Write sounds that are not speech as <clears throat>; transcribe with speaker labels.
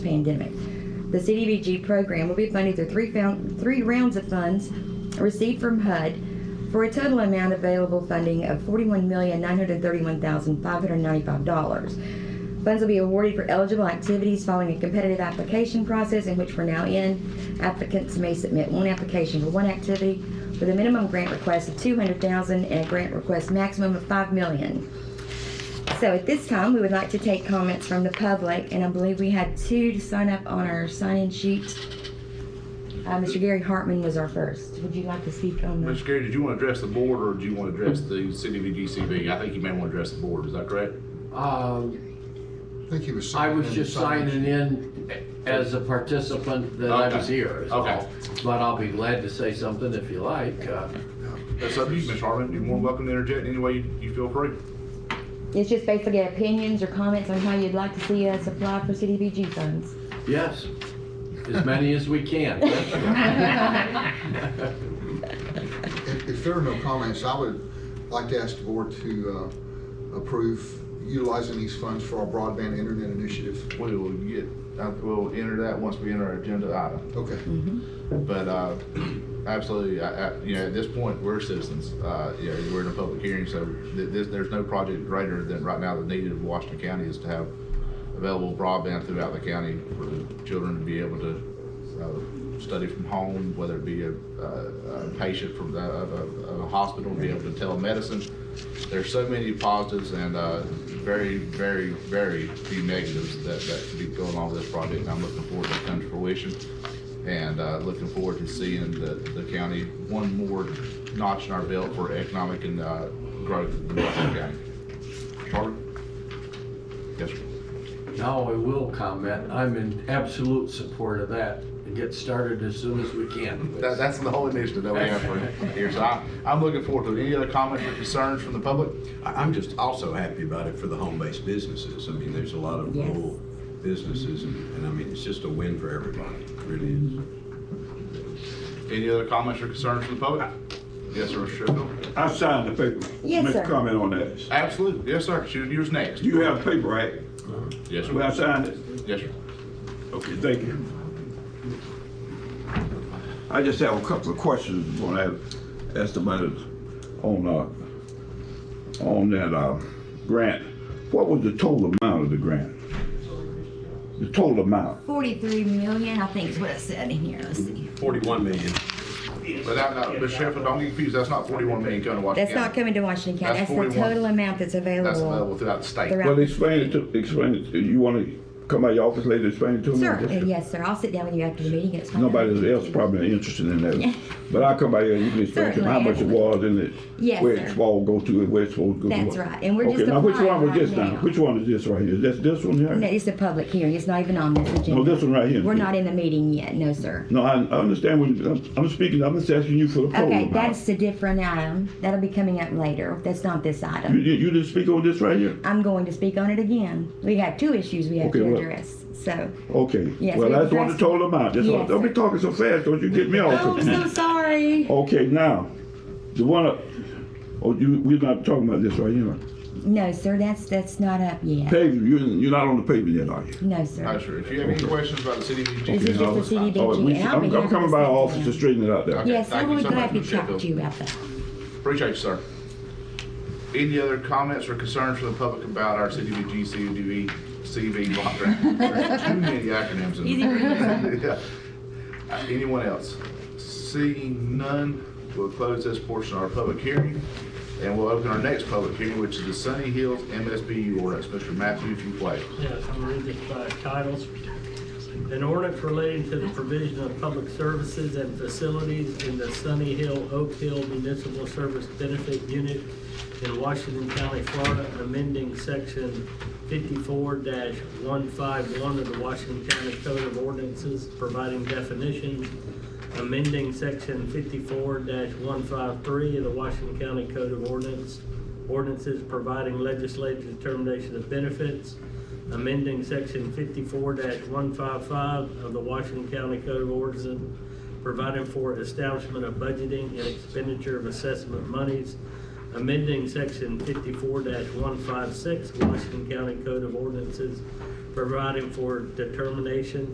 Speaker 1: pandemic. The CDBG program will be funded through three, found, three rounds of funds received from HUD for a total amount available funding of $41,931,595. Funds will be awarded for eligible activities following a competitive application process in which we're now in. Applicants may submit one application for one activity with a minimum grant request of 200,000 and a grant request maximum of 5 million. So at this time, we would like to take comments from the public, and I believe we had two to sign up on our sign-in sheet. Uh, Mr. Gary Hartman was our first. Would you like to speak on the?
Speaker 2: Mr. Gary, did you want to address the board or do you want to address the city of E GCB? I think you may want to address the board, is that correct?
Speaker 3: Um,
Speaker 4: I think he was
Speaker 3: I
Speaker 4: signing in.
Speaker 3: was just signing in as a participant that I was
Speaker 2: Okay.
Speaker 3: here. is
Speaker 2: Okay.
Speaker 3: all. But I'll be glad to say something if you like. Uh,
Speaker 2: That's up to you, Ms. Harmon. You're more than welcome to interject any way you- you feel free.
Speaker 1: It's just basically opinions or comments on how you'd like to see us apply for CDBG funds.
Speaker 3: Yes, as many as we can. <laughs>
Speaker 4: If, if there are no comments, I would like to ask the board to uh, approve utilizing these funds for our broadband internet initiative.
Speaker 5: We will get, uh, we'll enter that once we enter our agenda item.
Speaker 4: Okay,
Speaker 5: But uh, <clears throat> absolutely, I- I- you know, at this point, we're citizens. Uh, You know, we're in a public hearing, so th- this- there's no project greater than right now the need of Washington County is to have available broadband throughout the county for the children to be able to uh, study from home, whether it be a uh, a patient from the- of a- of a hospital, be able to telemedicine. There's so many positives and uh, very, very, very few negatives that that could be going on with this project. I'm looking forward to it coming to fruition and uh, looking forward to seeing the, the county one more notch in our belt for economic and uh, growth in Washington County. Charlie? Yes, sir.
Speaker 3: Now I will comment, I'm in absolute support of that, and get started as soon as we can.
Speaker 5: That, that's the whole initiative that we have <laughs> for here, so I, I'm looking forward to it. Any other comments or concerns from the public?
Speaker 6: I- I'm just also happy about it for the home-based businesses. I mean, there's a lot of
Speaker 1: Yes.
Speaker 6: rural businesses, and and I mean, it's just a win for everybody, It really is.
Speaker 5: Any other comments or concerns from the public? Yes, sir, Mr. Sheffield?
Speaker 7: I signed the paper.
Speaker 1: Yes,
Speaker 7: Make a
Speaker 1: sir.
Speaker 7: comment on that.
Speaker 5: Absolutely, yes, sir, shoot, yours next.
Speaker 7: You have the paper, right?
Speaker 5: Yes,
Speaker 7: Where I
Speaker 5: sir.
Speaker 7: signed it?
Speaker 5: Yes, sir.
Speaker 7: Okay, thank you. I just have a couple of questions when I have estimated on, uh, on that, uh, grant. What was the total amount of the grant? The total amount?
Speaker 1: 43 million, I think is what it said in here. Let's see.
Speaker 6: 41 million.
Speaker 5: But that, that- Mr. Sheffield, don't get confused, that's not forty-one million coming to
Speaker 1: That's
Speaker 5: Washington
Speaker 1: not
Speaker 5: County.
Speaker 1: coming to Washington County. That's
Speaker 5: That's
Speaker 1: the
Speaker 5: 41.
Speaker 1: total amount that's
Speaker 5: That's available
Speaker 1: available.
Speaker 5: throughout the state.
Speaker 1: throughout-
Speaker 7: Well, explain it to, explain it, to- you wanna come by your office later, explain it to me?
Speaker 1: Sir, uh, yes, sir. I'll sit down with you after the meeting. It's fine.
Speaker 7: Nobody else probably interested
Speaker 1: <laughs>
Speaker 7: in that, but I'll come by here, you can explain to me how much it was and it.
Speaker 1: Yes,
Speaker 7: Where
Speaker 1: sir.
Speaker 7: it's all go to and where it's supposed to go. to.
Speaker 1: That's right, and we're just
Speaker 7: Okay, now which one was
Speaker 1: applying
Speaker 7: this
Speaker 1: right
Speaker 7: now?
Speaker 1: now.
Speaker 7: Which one is this right here? That's this one
Speaker 1: No,
Speaker 7: here?
Speaker 1: it's a public hearing. It's not even on this agenda.
Speaker 7: Oh, this one right here.
Speaker 1: We're not in the meeting yet. No, sir.
Speaker 7: No, I, I understand what you, I'm- I'm speaking, I'm just asking you for the total
Speaker 1: Okay,
Speaker 7: amount.
Speaker 1: that's a different item. That'll be coming up later. That's not this
Speaker 7: You,
Speaker 1: item.
Speaker 7: you you didn't speak on this right here?
Speaker 1: I'm going to speak on it again. We have two issues we have
Speaker 7: Okay,
Speaker 1: to
Speaker 7: well-
Speaker 1: address, so.
Speaker 7: Okay,
Speaker 1: Yes,
Speaker 7: well,
Speaker 1: we
Speaker 7: that's what the
Speaker 1: addressed-
Speaker 7: total amount, that's
Speaker 1: Yes,
Speaker 7: what, don't be
Speaker 1: sir.
Speaker 7: talking so fast, don't you get me
Speaker 1: Oh,
Speaker 7: off.
Speaker 1: I'm so sorry.
Speaker 7: Okay, now, the one, up- oh, you, we're not talking about this right here.
Speaker 1: No, sir, that's, that's not up yet.
Speaker 7: Paving, you, you're not on the pavement yet, are you?
Speaker 1: No,
Speaker 5: No,
Speaker 1: sir.
Speaker 5: sir, if you have any questions about the city of
Speaker 1: This
Speaker 5: GCB,
Speaker 1: is just a CDBG.
Speaker 7: Oh, we-
Speaker 1: and I'll be
Speaker 7: I'm,
Speaker 1: happy
Speaker 7: I'm
Speaker 1: to
Speaker 7: coming by
Speaker 1: speak to
Speaker 7: office
Speaker 1: them.
Speaker 7: to straighten it out there.
Speaker 1: Yes, I
Speaker 5: Thank you
Speaker 1: would
Speaker 5: so much,
Speaker 1: gladly
Speaker 5: Ms.
Speaker 1: talk to you about that.
Speaker 5: Appreciate you, sir. Any other comments or concerns from the public about our CDBG, CDB, CV
Speaker 1: <laughs>
Speaker 5: block grant? There's Too many acronyms in there. <laughs> Yeah. Uh, Anyone else? Seeing none, we'll close this portion of our public hearing, and we'll open our next public hearing, which is the Sunny Hills MSBU ordinance. Mr. Matthew, if you please.
Speaker 8: Yes, I'm reading this by titles. An ordinance relating to the provision of public services and facilities in the Sunny Hill Oak Hill Municipal Service Benefit Unit in Washington County, Florida, amending section fifty-four one five one of the Washington County Code of Ordinances, providing definitions, amending section fifty-four one five three of the Washington County Code of Ordinance, ordinances providing legislative determination of benefits, amending section fifty-four one five five of the Washington County Code of Ordinances, providing for establishment of budgeting and expenditure of assessment monies, amending section fifty-four one five six Washington County Code of Ordinances, providing for determination